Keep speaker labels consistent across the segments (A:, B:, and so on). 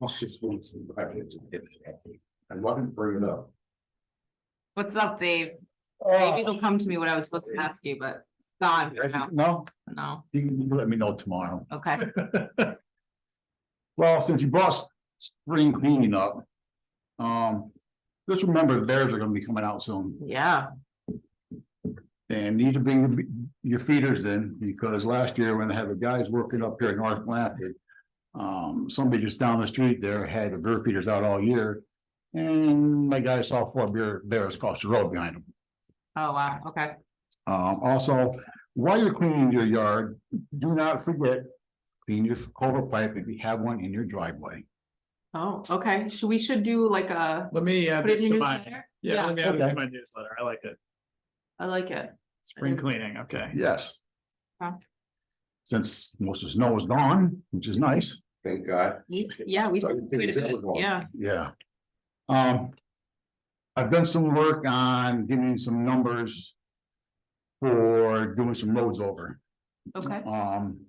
A: Must just want some private. I wasn't bringing it up.
B: What's up, Dave?
C: Oh,
B: Maybe it'll come to me what I was supposed to ask you, but gone for now.
C: No,
B: No,
C: you can let me know tomorrow.
B: okay.
C: Well, since you brought spring cleaning up. Um, just remember the bears are gonna be coming out soon
B: Yeah,
C: and need to bring your feeders in because last year when they had the guys working up here in North Atlantic. Um, somebody just down the street there had the bear feeders out all year. And my guy saw four bear bears across the road behind them.
B: oh wow, okay,
C: Um, also, while you're cleaning your yard, do not forget, clean your culvert pipe if you have one in your driveway.
B: oh, okay, should, we should do like a,
D: Let me add
B: put it
D: this
B: in
D: to
B: your
D: my,
B: newsletter?
D: yeah,
B: Yeah,
D: let me add this
C: okay.
D: to my newsletter. I like it.
B: I like it,
D: Spring
B: Okay.
D: cleaning, okay.
C: Yes.
B: Huh.
C: Since most of the snow is gone, which is nice,
A: Thank God.
B: we, yeah, we,
A: Thought you figured that was all.
B: yeah,
C: yeah. Um. I've done some work on giving some numbers. For doing some roads over.
B: okay,
C: Um.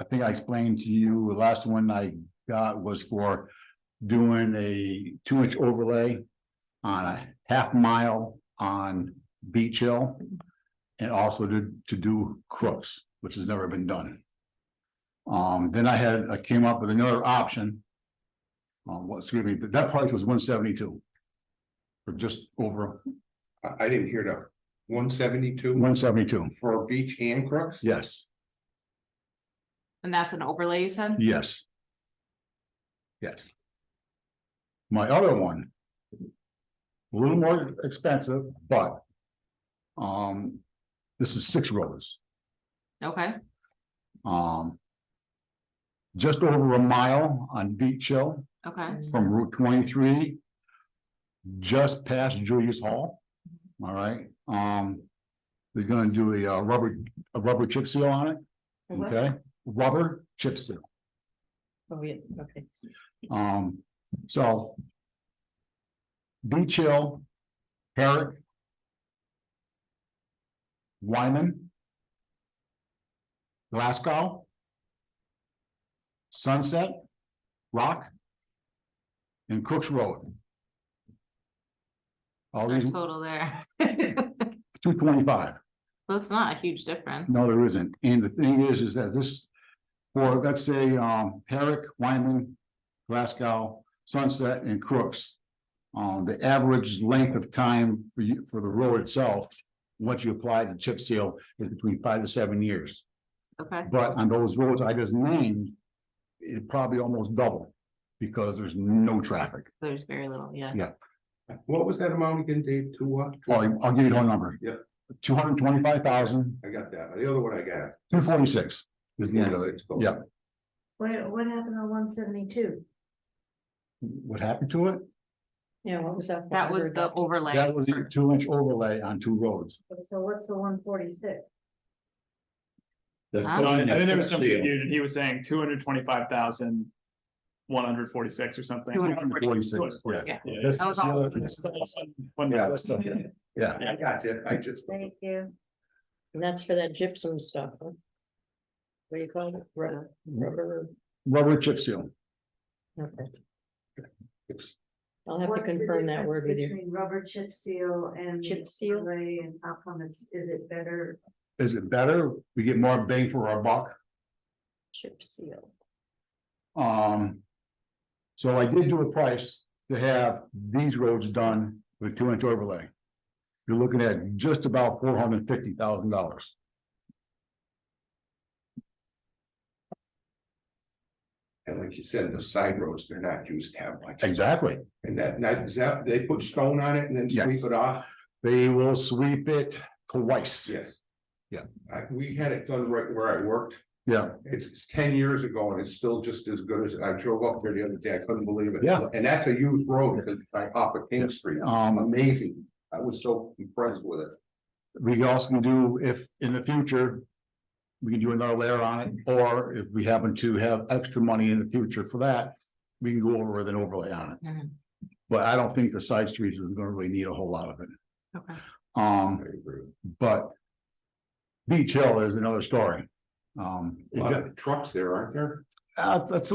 C: I think I explained to you, the last one I got was for doing a two inch overlay. On a half mile on Beach Hill. And also to, to do Crooks, which has never been done. Um, then I had, I came up with another option. Um, what, excuse me, that price was one seventy-two. For just over
A: I, I didn't hear that. One seventy-two
C: one seventy-two,
A: for beach and crooks?
C: yes,
B: and that's an overlay you said?
C: yes. Yes. My other one. A little more expensive, but. Um, this is six rollers.
B: Okay,
C: um. Just over a mile on Beach Hill
B: okay,
C: from Route twenty-three. Just past Julius Hall, all right, um. They're gonna do a uh, rubber, a rubber chip seal on it, okay, rubber chip seal.
E: Oh, yeah, okay.
C: Um, so. Beach Hill, Herrick. Wyman. Glasgow. Sunset, Rock. And Cooks Road. All
B: There's
C: these,
B: total there. Well,
C: two twenty-five.
B: it's not a huge difference,
C: No, there isn't. And the thing is, is that this, for, let's say, um, Herrick, Wyman, Glasgow, Sunset and Crooks. Um, the average length of time for you, for the road itself, once you apply the chip seal, is between five to seven years.
B: okay,
C: But on those roads I just named, it probably almost double because there's no traffic.
B: there's very little, yeah,
A: What was that amount again, Dave? Two what?
C: Well, I'll give you the whole number.
A: Yeah.
C: Two hundred twenty-five thousand,
A: I got that. The other one I got.
C: two forty-six is the end of it. Yeah.
E: What, what happened on one seventy-two?
C: What happened to it?
E: Yeah, what was that?
B: that was the overlay.
C: That was a two inch overlay on two roads.
E: So what's the one forty-six?
B: Huh?
D: Well, I think there was some confusion. He was saying two hundred twenty-five thousand one hundred forty-six or something.
C: 246,
D: 246,
B: yeah.
D: yeah.
C: This
B: That was
C: is the
B: all-
C: other-
D: This is all one- one-
C: Yeah.
D: this-
C: Yeah,
A: I got it. I just.
E: Thank you. And that's for that gypsum stuff, huh? What do you call it? Rubber, rubber,
C: rubber chip seal.
E: okay.
A: It's-
E: I'll have to
F: What's the
E: confirm that
F: difference
E: word with you.
F: Between rubber chip seal and.
E: Chip seal?
F: overlay And how come it's, is it better?
C: Is it better? We get more bang for our buck.
E: Chip seal.
C: Um. So I did do a price to have these roads done with two inch overlay. You're looking at just about four hundred and fifty thousand dollars.
A: And like you said, the side roads, they're not used to have much.
C: Exactly.
A: And that, that, is that, they put stone on it and then sweep
C: Yes.
A: it off?
C: They will sweep it twice.
A: Yes.
C: Yeah.
A: I, we had it done right where I worked.
C: Yeah,
A: It's it's ten years ago and it's still just as good as, I drove up there the other day, I couldn't believe it.
C: Yeah.
A: And that's a used road, because I off of King Street,
C: um,
A: amazing, I was so impressed with it.
C: we also can do if in the future. We can do another layer on it, or if we happen to have extra money in the future for that, we can go over with an overlay on it.
B: Mhm.
C: But I don't think the side streets is gonna really need a whole lot of it,
B: Okay,
C: um,
A: I agree.
C: but. Beach Hill is another story. Um,
A: A
C: it
A: lot
C: got-
A: of trucks there, aren't there?
C: uh, that's